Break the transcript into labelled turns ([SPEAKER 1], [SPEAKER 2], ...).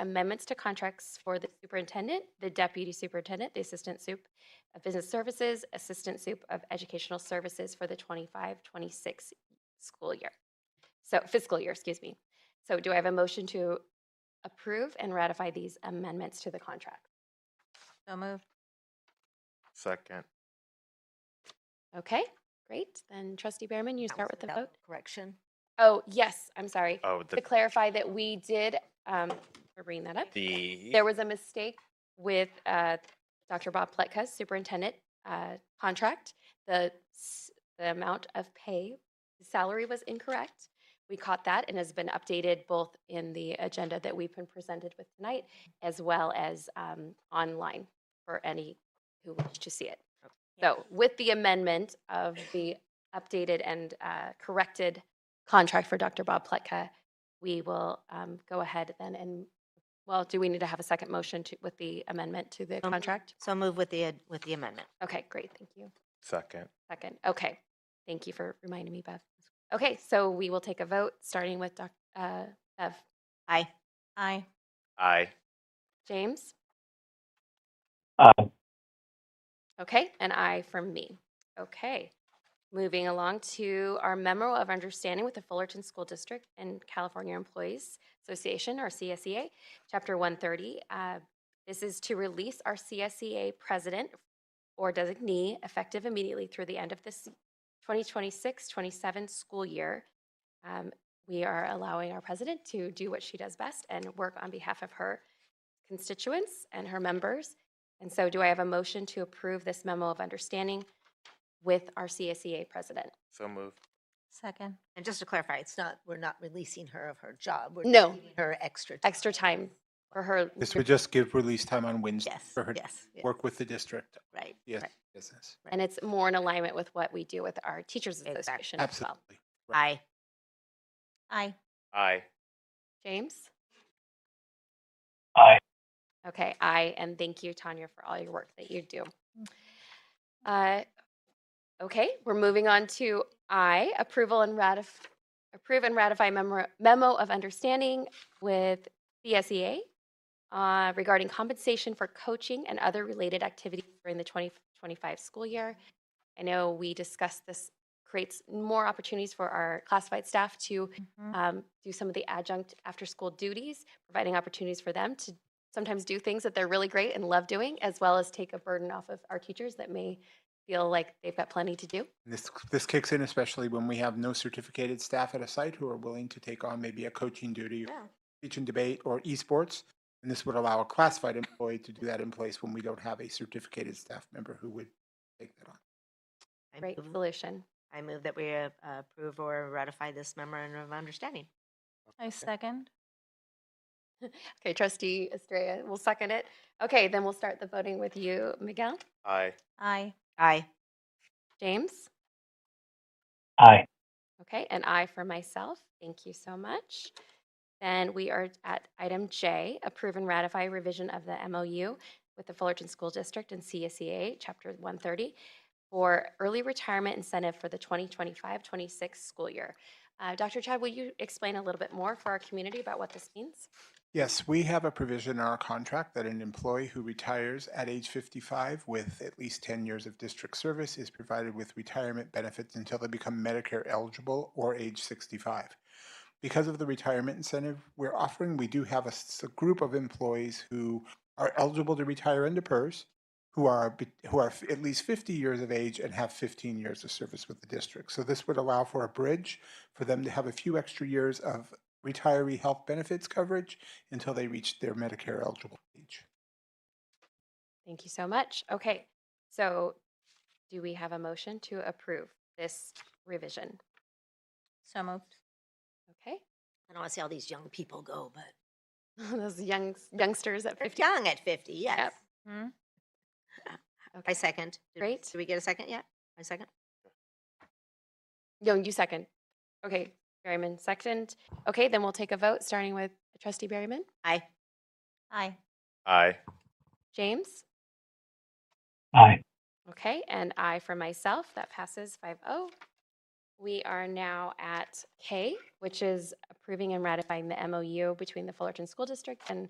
[SPEAKER 1] amendments to contracts for the superintendent, the deputy superintendent, the assistant soup of business services, assistant soup of educational services for the 25, 26 school year. So fiscal year, excuse me. So do I have a motion to approve and ratify these amendments to the contract?
[SPEAKER 2] So moved.
[SPEAKER 3] Second.
[SPEAKER 1] Okay, great. Then trustee Behrman, you start with the vote.
[SPEAKER 2] Correction.
[SPEAKER 1] Oh, yes, I'm sorry.
[SPEAKER 3] Oh,
[SPEAKER 1] To
[SPEAKER 3] the,
[SPEAKER 1] clarify that we did, um, we're bringing that up.
[SPEAKER 3] the,
[SPEAKER 1] There was a mistake with uh, Dr. Bob Pletka's superintendent uh, contract. The, s- the amount of pay, the salary was incorrect. We caught that and has been updated both in the agenda that we've been presented with tonight, as well as um, online for any who wish to see it. So with the amendment of the updated and uh, corrected contract for Dr. Bob Pletka, we will um, go ahead then and, well, do we need to have a second motion to, with the amendment to the
[SPEAKER 2] moved.
[SPEAKER 1] contract?
[SPEAKER 2] So move with the, ad- with the amendment.
[SPEAKER 1] Okay, great, thank you.
[SPEAKER 3] second.
[SPEAKER 1] Second, okay. Thank you for reminding me, Bev. Okay, so we will take a vote, starting with Doc, uh, Bev.
[SPEAKER 2] Aye. Aye.
[SPEAKER 3] Aye.
[SPEAKER 1] James?
[SPEAKER 4] Aye.
[SPEAKER 1] Okay, an aye from me. Okay. Moving along to our memo of understanding with the Fullerton School District and California Employees Association, or CSEA, Chapter 130. Uh, This is to release our CSEA president or designee effective immediately through the end of this 2026-27 school year. Um, We are allowing our president to do what she does best and work on behalf of her constituents and her members. And so do I have a motion to approve this memo of understanding with our CSEA president?
[SPEAKER 3] So moved.
[SPEAKER 2] Second. And just to clarify, it's not, we're not releasing her of her job. We're
[SPEAKER 1] No.
[SPEAKER 2] giving Her extra. time.
[SPEAKER 1] Extra time for her.
[SPEAKER 4] This would just give release time on Wednesday
[SPEAKER 2] Yes,
[SPEAKER 4] for her to
[SPEAKER 2] yes, yeah,
[SPEAKER 4] work with the district.
[SPEAKER 2] right.
[SPEAKER 4] Yes,
[SPEAKER 1] Right.
[SPEAKER 4] business.
[SPEAKER 1] And it's more in alignment with what we do with our teachers
[SPEAKER 2] Exact-
[SPEAKER 1] association as well.
[SPEAKER 4] Absolutely.
[SPEAKER 2] Aye. Aye.
[SPEAKER 3] Aye.
[SPEAKER 1] James?
[SPEAKER 4] Aye.
[SPEAKER 1] Okay, aye, and thank you, Tanya, for all your work that you do. Uh, Okay, we're moving on to I, approval and ratif, approve and ratify memo, memo of understanding with CSEA uh, regarding compensation for coaching and other related activities during the 2025 school year. I know we discussed this creates more opportunities for our classified staff to
[SPEAKER 2] Mm-hmm.
[SPEAKER 1] um, do some of the adjunct after school duties, providing opportunities for them to sometimes do things that they're really great and love doing, as well as take a burden off of our teachers that may feel like they've got plenty to do.
[SPEAKER 4] This, this kicks in especially when we have no certificated staff at a site who are willing to take on maybe a coaching duty, or
[SPEAKER 2] Yeah.
[SPEAKER 4] teach and debate, or esports. And this would allow a classified employee to do that in place when we don't have a certificated staff member who would take that on.
[SPEAKER 2] I
[SPEAKER 1] Great
[SPEAKER 2] move-
[SPEAKER 1] solution.
[SPEAKER 2] I move that we uh, approve or ratify this memorandum of understanding.
[SPEAKER 5] I second.
[SPEAKER 1] Okay, Trustee Estrella will second it. Okay, then we'll start the voting with you, Miguel,
[SPEAKER 3] Aye.
[SPEAKER 5] Aye.
[SPEAKER 2] Aye.
[SPEAKER 1] James.
[SPEAKER 4] Aye.
[SPEAKER 1] Okay, and I for myself. Thank you so much. Then we are at item J, approve and ratify revision of the MOU with the Fullerton School District and CSEA, Chapter 130, for early retirement incentive for the 2025-26 school year. Uh, Dr. Chad, will you explain a little bit more for our community about what this means?
[SPEAKER 4] Yes, we have a provision in our contract that an employee who retires at age 55 with at least 10 years of district service is provided with retirement benefits until they become Medicare eligible or age 65. Because of the retirement incentive we're offering, we do have a, s- a group of employees who are eligible to retire under PERS, who are be- who are f- at least 50 years of age and have 15 years of service with the district. So this would allow for a bridge for them to have a few extra years of retiree health benefits coverage until they reach their Medicare eligible age.
[SPEAKER 1] Thank you so much. Okay, so do we have a motion to approve this revision?
[SPEAKER 5] So moved.
[SPEAKER 1] Okay,
[SPEAKER 2] I don't want to see all these young people go, but
[SPEAKER 1] those young youngsters at
[SPEAKER 2] they're
[SPEAKER 1] 50.
[SPEAKER 2] young at 50, yes.
[SPEAKER 5] Hmm?
[SPEAKER 2] I
[SPEAKER 1] Okay.
[SPEAKER 2] second. Did-
[SPEAKER 1] Great.
[SPEAKER 2] Did we get a second yet? I second?
[SPEAKER 1] No, you second. Okay, Berryman second. Okay, then we'll take a vote, starting with trustee Berryman.
[SPEAKER 2] Aye.
[SPEAKER 5] Aye.
[SPEAKER 3] Aye.
[SPEAKER 1] James?
[SPEAKER 4] Aye.
[SPEAKER 1] Okay, and I for myself. That passes 5-0. oh. We are now at K, which is approving and ratifying the MOU between the Fullerton School District and